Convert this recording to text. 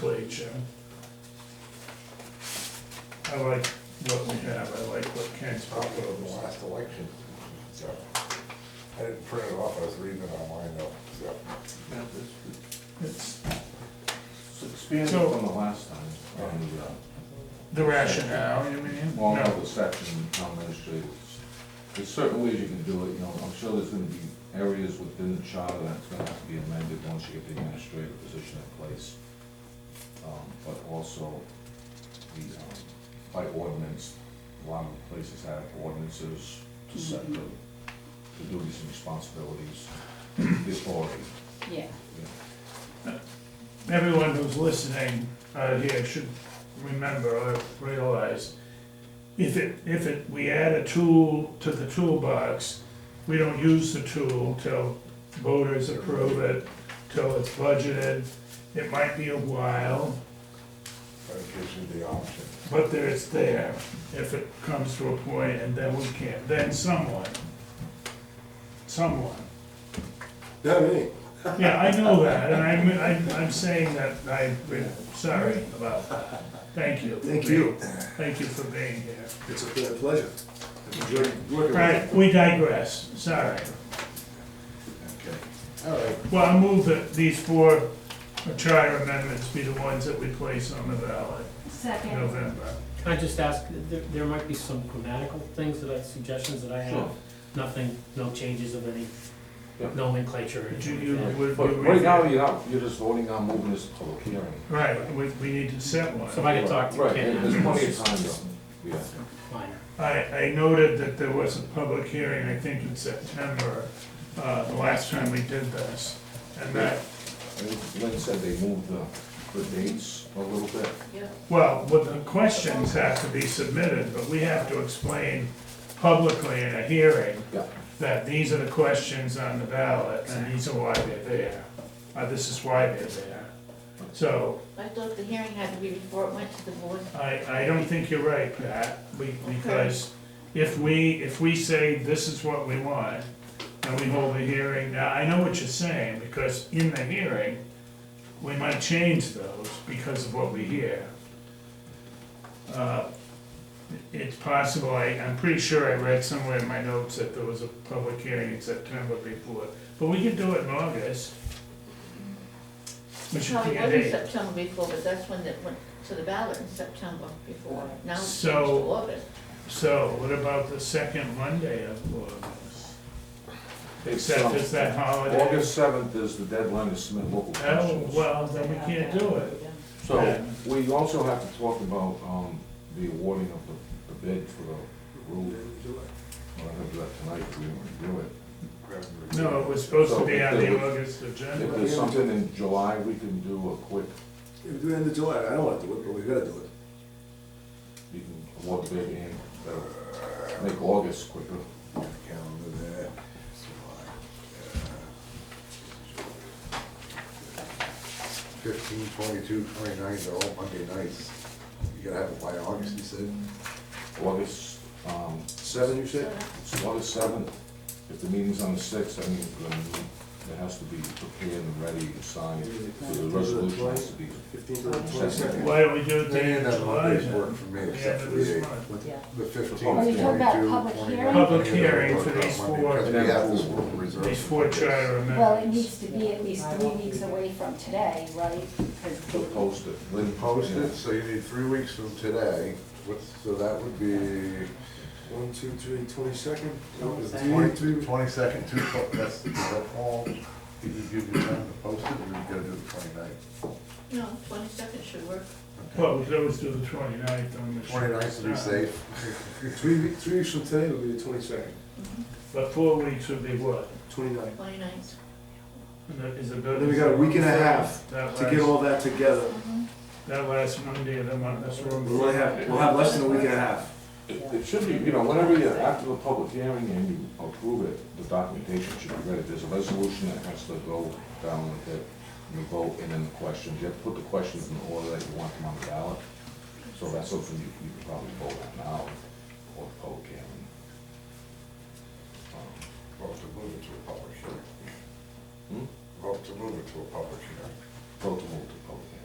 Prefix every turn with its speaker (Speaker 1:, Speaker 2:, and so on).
Speaker 1: nomenclature. I like what we have, I like what Kent's
Speaker 2: Probably in the
Speaker 1: proposed.
Speaker 2: last election, so, I didn't print it off, I was reading it online though, so.
Speaker 1: It's
Speaker 3: It's expanded
Speaker 1: So-
Speaker 3: from the last time, on the, uh,
Speaker 1: the rationale, you mean?
Speaker 3: well, no,
Speaker 1: No,
Speaker 3: the section, town administrator. There's certain ways you can do it, you know, I'm sure there's gonna be areas within the charter that's gonna have to be amended once you get the administrative position in place. Um, but also, the, um, by ordinance, a lot of places have ordinances to set the, the duties and responsibilities, the authority,
Speaker 4: Yeah,
Speaker 3: you know.
Speaker 1: everyone who's listening out here should remember or realize, if it, if it, we add a tool to the toolbox, we don't use the tool till voters approve it, till it's budgeted. It might be a while,
Speaker 2: But it gives you the option.
Speaker 1: But there it's there, if it comes to a point, and then we can't, then someone, someone.
Speaker 2: Not me.
Speaker 1: Yeah, I know that, and I'm, I'm, I'm saying that I, we're sorry about that. Thank you.
Speaker 5: Thank you.
Speaker 1: Thank you for being here.
Speaker 5: It's a pleasure. Enjoy working with
Speaker 1: Right, we digress, sorry.
Speaker 2: All right,
Speaker 1: Well, I move that these four charter amendments be the ones that we place on the ballot in
Speaker 4: second,
Speaker 1: November.
Speaker 6: Can I just ask, there, there might be some grammatical things that I, suggestions that I have,
Speaker 3: Sure.
Speaker 6: nothing, no changes of any
Speaker 3: Yeah.
Speaker 6: nomenclature or
Speaker 1: Did you,
Speaker 6: anything
Speaker 1: you,
Speaker 6: like that.
Speaker 1: would
Speaker 3: But right now,
Speaker 1: you?
Speaker 3: you're not, you're just voting on moving this to public hearing.
Speaker 1: Right, we, we need to set one.
Speaker 6: So if I could talk to
Speaker 3: Right,
Speaker 6: Ken.
Speaker 3: there's plenty of
Speaker 6: it's
Speaker 3: time,
Speaker 6: just
Speaker 3: though. yeah.
Speaker 6: minor.
Speaker 1: I, I noted that there was a public hearing, I think in September, uh, the last time we did this. And that,
Speaker 3: I think Lynn said they moved the, the dates a little bit.
Speaker 1: well, what the questions have to be submitted, but we have to explain publicly in a hearing
Speaker 3: Yeah.
Speaker 1: that these are the questions on the ballot, and these are why they're there. Uh, this is why they're there. So,
Speaker 7: I thought the hearing had to be before it went to the board.
Speaker 1: I, I don't think you're right, Pat, be- because if we, if we say this is what we want, and we hold the hearing, now, I know what you're saying, because in the hearing, we might change those because of what we hear. Uh, It's possible, I, I'm pretty sure I read somewhere in my notes that there was a public hearing in September before, but we could do it in August. We should
Speaker 7: No,
Speaker 1: pick
Speaker 7: it
Speaker 1: a
Speaker 7: wasn't
Speaker 1: date.
Speaker 7: September before, but that's when it went to the ballot in September before. Now it's changed to
Speaker 1: So-
Speaker 7: August.
Speaker 1: So what about the second Monday of August? Except it's that holiday.
Speaker 3: August seventh is the deadline to submit local
Speaker 1: Oh,
Speaker 3: petitions.
Speaker 1: well, then we can't do it.
Speaker 3: So we also have to talk about, um, the awarding of the, the bid for the roof. I don't have that tonight, we didn't review it.
Speaker 1: No, it was supposed to be on the August
Speaker 3: If
Speaker 1: agenda.
Speaker 3: there's something in July, we can do a quick,
Speaker 5: If we do it in July, I don't wanna do it, but we gotta do it.
Speaker 3: you can award bid and uh, make August quicker.
Speaker 2: calendar there. Fifteen, twenty-two, twenty-nine, they're all Monday nights. You gotta have it by August, you said?
Speaker 3: August, um,
Speaker 5: Seven, you said?
Speaker 3: It's August seventh, if the meeting's on the sixth, I mean, then it has to be prepared and ready and signed, so the resolution has to be.
Speaker 5: Fifteen to the twenty-second.
Speaker 1: Why don't we do it
Speaker 2: Any
Speaker 1: then
Speaker 2: of
Speaker 1: in
Speaker 2: that
Speaker 1: July
Speaker 2: Mondays
Speaker 1: then?
Speaker 2: work for me,
Speaker 1: The end
Speaker 2: except for
Speaker 1: of
Speaker 2: the
Speaker 1: this
Speaker 2: eighth.
Speaker 1: month.
Speaker 4: yeah.
Speaker 2: The fifteenth,
Speaker 3: Are
Speaker 4: we talking about
Speaker 2: 22,
Speaker 4: public
Speaker 2: 29.
Speaker 4: hearing?
Speaker 1: Public hearing for these
Speaker 2: Monday,
Speaker 1: four-
Speaker 2: because we have this reserved
Speaker 1: These four
Speaker 2: for this.
Speaker 1: charter
Speaker 4: Well, it
Speaker 1: amendments.
Speaker 4: needs to be at least three weeks away from today, right? 'Cause
Speaker 3: They'll
Speaker 4: the-
Speaker 3: post it. Lynn
Speaker 2: Post
Speaker 3: yeah.
Speaker 2: it, so you need three weeks from today, what's, so that would be
Speaker 5: One, two, three, twenty-second.
Speaker 2: twenty-two, twenty-second, two, po- that's, that all, you could give you time to post it, or you gotta do the twenty-ninth.
Speaker 7: No, twenty-second should work.
Speaker 1: Well, we could always do the 29th on the.
Speaker 2: Twenty-ninth to be safe.
Speaker 5: Three, we- three weeks from today will be the twenty-second,
Speaker 1: But four weeks would be what?
Speaker 5: twenty-ninth.
Speaker 7: Twenty-ninth.
Speaker 1: Is it- Is it?
Speaker 5: Then we got a week and a half
Speaker 1: That
Speaker 5: to get
Speaker 1: last-
Speaker 5: all that together.
Speaker 1: That last Monday of the month, that's where
Speaker 5: We'll only have, we'll have less than a week and a half.
Speaker 3: It it should be, you know, whenever you, after the public hearing and you approve it, the documentation should be ready. There's a resolution that has to go down with it, and you vote, and then the questions. You have to put the questions in the order that you want them on the ballot. So that's something you, you could probably vote on now, or the public hearing. Um,
Speaker 2: Vote to move it to a public hearing.
Speaker 3: Hmm?
Speaker 2: Vote to move it to a public hearing.
Speaker 3: Vote to move to public hearing.